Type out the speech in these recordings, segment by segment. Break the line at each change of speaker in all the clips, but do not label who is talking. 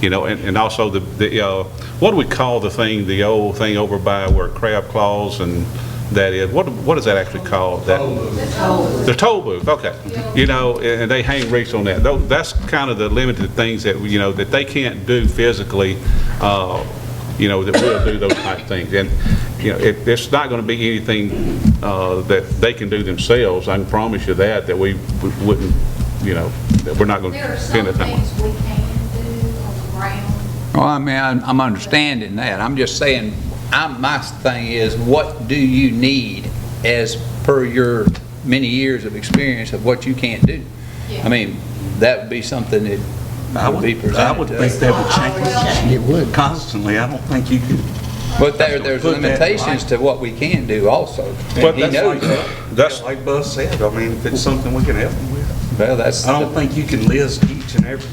You know, and, and also the, the, uh, what do we call the thing, the old thing over by where crab claws and that is? What, what is that actually called? That The toll booth, okay. You know, and and they hang wreaths on that. Tho- That's kind of the limited things that, you know, that they can't do physically, uh, you know, that we'll do those type things. And, you know, it, it's not going to be anything uh, that they can do themselves. I can promise you that, that we w- wouldn't, you know, that we're not going
There
to
are
spend
some
it that much.
things we can do on the ground.
Well, I mean, I'm I'm understanding that. I'm just saying, I'm, my thing is, what do you need as per your many years of experience of what you can't do? I mean, that would be something
I
that would
would,
be
I would
presented to
think
us.
that would change. It would. Constantly, I don't think you could.
But there, there's
Put that in
limitations to
line.
what we can do also.
But
And he
that's
knows
like-
that.
That's-
yeah, Like Buzz said, I mean, if it's something we can help them with.
Well, that's,
I don't
the-
think you can list each and every.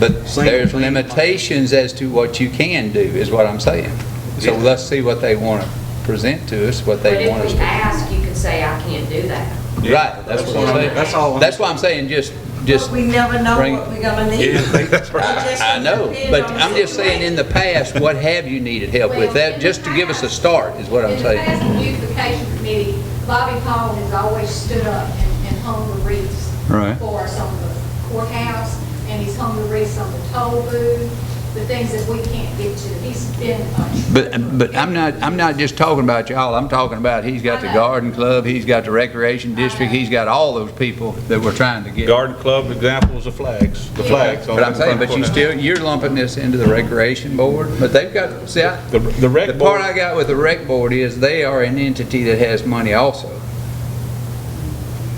but
single
there's
thing.
limitations as to what you can do, is what I'm saying. So
Yeah.
let's see what they want to present to us, what
But
they want
if
us
we
to.
ask, you can say, I can't do that.
Right, that's what I'm saying.
That's all I'm-
That's why I'm saying, just, just,
But we never know
bring-
what we're gonna need.
I
I
know, but I'm just saying, in the past, what have you needed help with? That, just to give us a start, is what I'm
In the past,
saying.
the beautification committee, Bobby Paul has always stood up and and hung the wreaths
Right.
for us on the courthouse, and he's hung the wreaths on the toll booth, the things that we can't get to. He's been a...
But, but I'm not, I'm not just talking about y'all, I'm talking about, he's got the garden club, he's got the recreation district, he's got all those people that we're trying to get.
Garden club examples of flags, the flags. on
But I'm
the
saying,
front
but you
corner.
still, you're lumping this into the recreation board, but they've got, see, I.
The- the rec
The part
board-
I got with the rec board is, they are an entity that has money also.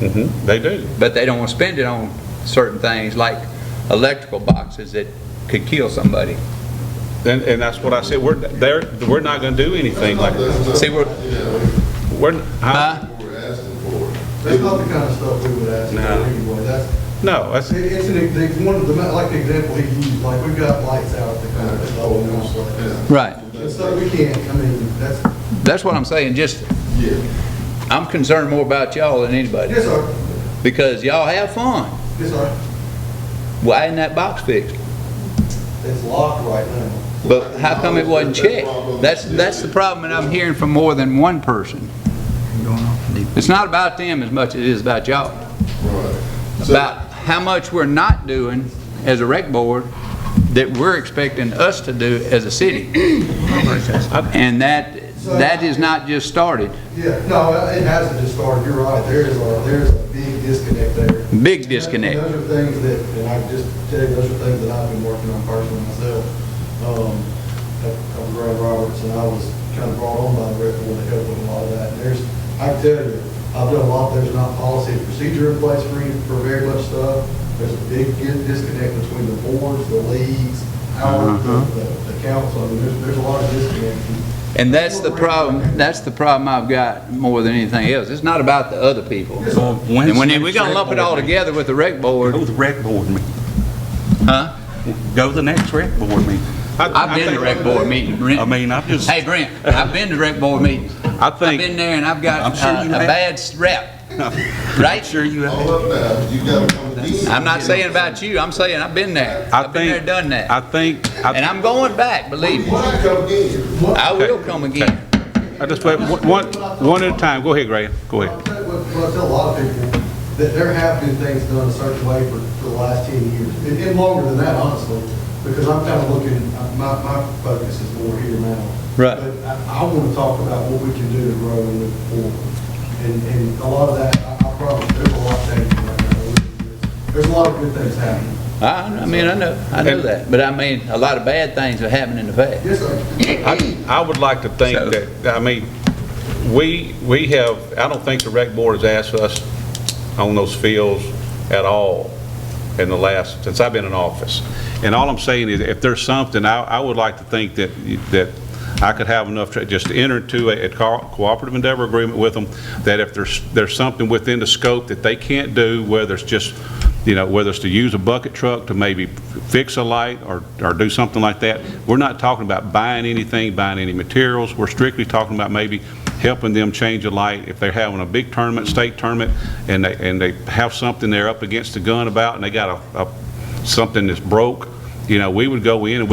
Mm-hmm.
Mhm, They do.
but they don't want to spend it on certain things like electrical boxes that could kill somebody.
And, and that's what I said, we're, they're, we're not going to do anything like,
See, we're,
we're, huh?
huh?
we were asking for. That's not the kind of stuff we would ask for anyway. That's,
No, that's,
it- it's, an- they wanted, the ma- like the example he used, like we've got lights out at the kind of stuff we want to
Right.
play. And so we can't, I mean, that's,
That's what I'm saying, just,
yeah.
I'm concerned more about y'all than anybody,
Yes, sir.
because y'all have fun.
Yes, sir.
Why isn't that box fixed?
It's locked right now.
But how come it wasn't checked? That's, that's the problem that I'm hearing from more than one person. It's not about them as much as it is about y'all. About how much we're not doing as a rec board that we're expecting us to do as a city. And that, that is not just started,
Yeah, no, it hasn't just started. You're right. There is a, there is a big disconnect there.
big disconnect.
Those are things that, and I just tell you, those are things that I've been working on personally myself. Um, I- I'm Brad Roberts, and I was kind of brought on by the rep board to help with a lot of that. And there's, I can tell you, I've done a lot, there's not policy and procedure in place for, any- for very much stuff. There's a big di- disconnect between the boards, the leagues, our,
Uh-huh.
the, the- the council. I mean, there's, there's a lot of disconnect.
And that's the problem, that's the problem I've got more than anything else. It's not about the other people. And when we're gonna lump it all together with the rec board,
Go to the rec board meeting.
huh?
Go to the next rec board meeting.
I've been to rec board meeting,
I
Brent.
mean, I've just,
Hey, Brent, I've been to rec board meetings.
I
I've
think,
been there and I've got
I'm sure
uh,
you
a
have.
bad rep,
I'm
right?
sure you have.
up now, you gotta come
I'm not saying about you, I'm saying I've been there.
I
I've been there,
think,
done
I
that.
think, I
And I'm going back, believe me.
come again?
I will come again.
I just, wait, one, one at a time, go ahead, Graham, go
Well,
ahead.
I tell a lot of people that there have been things done a certain way for, for the last 10 years, and- and longer than that, honestly, because I'm kind of looking, uh, my, my focus is more here now.
Right.
But I, I want to talk about what we can do to grow and move forward. And, and a lot of that, I I promise, there's a lot changing right now. There's a lot of good things happening.
I, I mean, I know, I know that, but I mean, a lot of bad things have happened in the past.
Yes, sir.
I, I would like to think
So-
that, I mean, we, we have, I don't think the rec board has asked us on those fields at all in the last, since I've been in office. And all I'm saying is, if there's something, I, I would like to think that, that I could have enough, to just enter into a a co- cooperative endeavor agreement with them, that if there's, there's something within the scope that they can't do, whether it's just, you know, whether it's to use a bucket truck to maybe fix a light or, or do something like that, we're not talking about buying anything, buying any materials. We're strictly talking about maybe helping them change a light. If they're having a big tournament, state tournament, and they, and they have something they're up against the gun about, and they got a, a, something that's broke, you know, we would go in and